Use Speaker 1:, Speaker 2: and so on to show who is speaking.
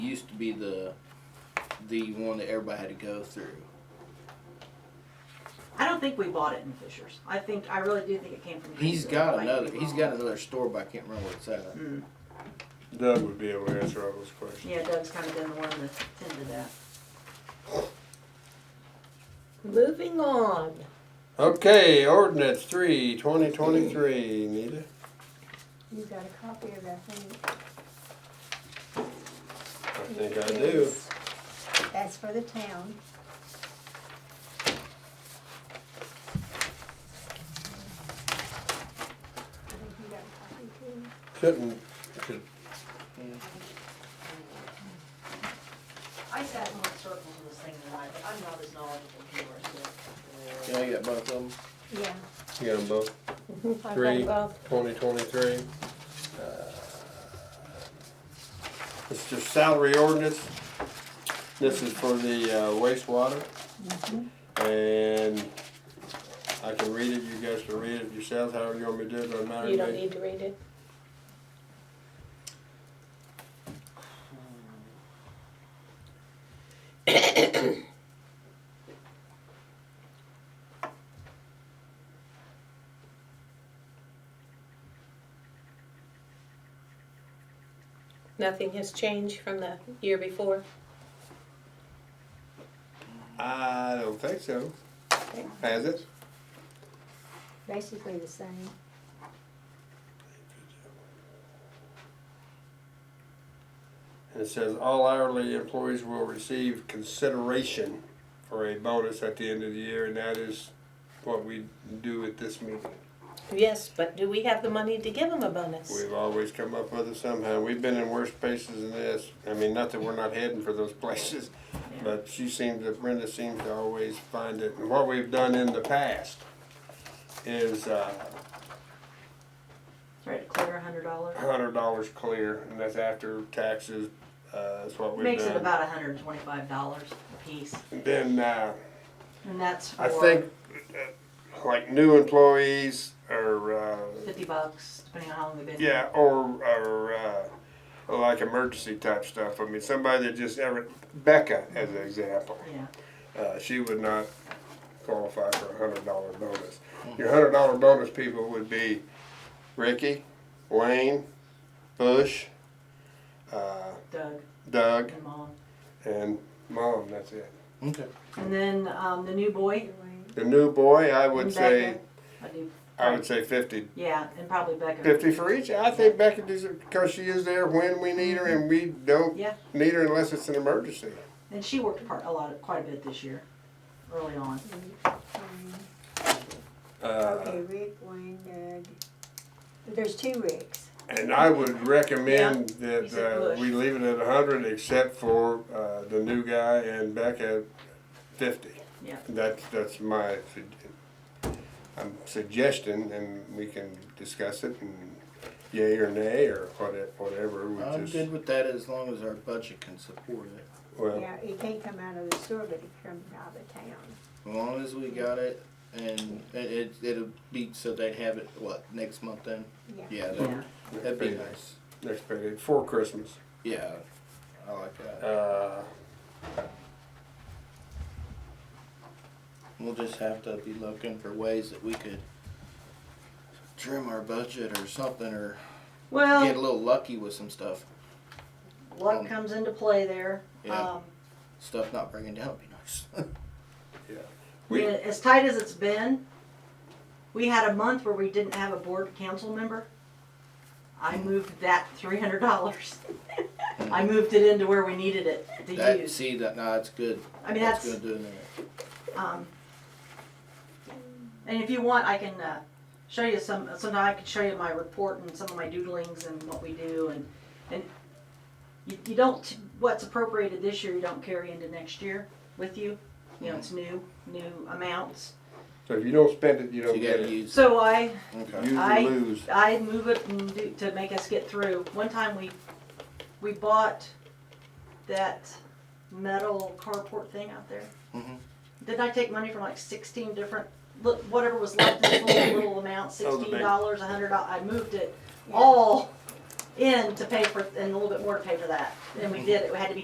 Speaker 1: used to be the the one that everybody had to go through.
Speaker 2: I don't think we bought it in Fisher's. I think, I really do think it came from.
Speaker 1: He's
Speaker 2: Kingsville. I
Speaker 1: got
Speaker 2: might
Speaker 1: another.
Speaker 2: be
Speaker 1: He's
Speaker 2: wrong.
Speaker 1: got another store, but I can't remember where it's at.
Speaker 2: Mm.
Speaker 3: Doug would be able to answer all those questions.
Speaker 2: Yeah, Doug's kind of been the one that tended that.
Speaker 4: Moving on.
Speaker 3: Okay, ordinance three, twenty twenty-three, Nita.
Speaker 5: You got a copy of that thing?
Speaker 3: I think I do.
Speaker 5: That's for the town. I think you got a copy too.
Speaker 3: Shouldn't, should,
Speaker 2: I sat in circles in this thing tonight, but I'm not as knowledgeable as you are,
Speaker 1: You know, you got both of them.
Speaker 5: Yeah.
Speaker 3: you got them both,
Speaker 4: I've got
Speaker 3: Three.
Speaker 4: both.
Speaker 3: twenty twenty-three. Uh, It's just salary ordinance. This is for the uh, wastewater.
Speaker 4: Mm-hmm.
Speaker 3: And I can read it, you guys can read it yourselves, however you want me to do it, doesn't matter to
Speaker 4: You don't
Speaker 3: me.
Speaker 4: need to read it. Nothing has changed from the year before.
Speaker 3: I don't think so.
Speaker 5: Okay.
Speaker 3: Has it?
Speaker 5: Basically the same.
Speaker 3: And it says all hourly employees will receive consideration for a bonus at the end of the year, and that is what we do at this meeting.
Speaker 4: Yes, but do we have the money to give them a bonus?
Speaker 3: We've always come up with it somehow. We've been in worse places than this. I mean, not that we're not heading for those places, but she seems to, Brenda seems to always find it. And what we've done in the past is, uh,
Speaker 2: Try to clear a hundred dollars.
Speaker 3: hundred dollars clear, and that's after taxes, uh, that's what we've done.
Speaker 2: Makes it about hundred and twenty-five dollars a piece,
Speaker 3: And Then, uh,
Speaker 2: and that's
Speaker 3: I
Speaker 2: for
Speaker 3: think, uh, like new employees or, uh,
Speaker 2: fifty bucks, depending on how long they've been. here.
Speaker 3: yeah, or, or, uh, like emergency type stuff. I mean, somebody that just ever, Becca as an example,
Speaker 2: Yeah,
Speaker 3: uh, she would not qualify for a hundred dollar bonus. Your hundred dollar bonus people would be Ricky, Wayne, Bush, uh,
Speaker 2: Doug
Speaker 3: Doug,
Speaker 2: and Mom.
Speaker 3: and mom. That's it.
Speaker 1: Okay.
Speaker 2: And then, um, the new boy,
Speaker 3: The new boy, I would say,
Speaker 2: I do,
Speaker 3: I would say 50,
Speaker 2: yeah, and probably Becca.
Speaker 3: 50 for each. I think Becky deserves because she is there when we need her, and we don't
Speaker 2: Yeah.
Speaker 3: need her unless it's an emergency.
Speaker 2: And she worked part, a lot, of- quite a bit this year, early on.
Speaker 3: Uh,
Speaker 5: Okay, Rick, Wayne, Doug. There's two Ricks.
Speaker 3: and I would recommend
Speaker 2: You said
Speaker 3: that
Speaker 2: Bush.
Speaker 3: uh, we leave it at 100, except for uh, the new guy and Becca 50.
Speaker 2: Yeah.
Speaker 3: That's that's my sug- um, suggestion, and we can discuss it and yay or nay or what- whatever. We
Speaker 1: I'm
Speaker 3: just,
Speaker 1: good with that as long as our budget can support it.
Speaker 3: well,
Speaker 5: Yeah, it can't come out of the store, but it comes out of the town.
Speaker 1: As long as we got it, and it, it it'll be so they have it what next month then.
Speaker 5: Yeah.
Speaker 1: Yeah, that,
Speaker 2: Yeah.
Speaker 1: that'd be nice.
Speaker 3: Next payday, for Christmas.
Speaker 1: Yeah, I like that.
Speaker 3: Uh,
Speaker 1: We'll just have to be looking for ways that we could trim our budget or something, or get a
Speaker 2: Well,
Speaker 1: little lucky with some stuff.
Speaker 2: luck comes into play there.
Speaker 1: Um, Yeah.
Speaker 2: Um,
Speaker 1: Stuff not breaking down would be nice.
Speaker 3: We-
Speaker 2: yeah, as tight as it's been, we had a month where we didn't have a board council member. I moved that three hundred dollars. I moved it into where we needed it to
Speaker 1: that
Speaker 2: use.
Speaker 1: see that nah, it's good.
Speaker 2: I mean,
Speaker 1: That's
Speaker 2: that's,
Speaker 1: good doing that.
Speaker 2: um, and if you want, I can, uh, show you some, so now I can show you my report and some of my doodlings and what we do and, and you, you don't, what's appropriated this year, you don't carry into next year with you. You know, it's new, new amounts.
Speaker 3: So if you don't spend it, you
Speaker 1: So
Speaker 3: don't
Speaker 1: you
Speaker 3: get
Speaker 1: gotta
Speaker 3: it.
Speaker 1: use.
Speaker 2: So I,
Speaker 1: Okay.
Speaker 3: Use or
Speaker 2: I-
Speaker 3: lose.
Speaker 2: I move it and do, to make us get through. One time we, we bought that metal carport thing out there.
Speaker 1: Mhm.
Speaker 2: Didn't I take money from like sixteen different, look, whatever was left in this little, little amount,
Speaker 3: Oh, the big-
Speaker 2: sixteen dollars, a hundred dollars, I moved it all in to pay for, and a little bit more to pay for that, and we did, it had to be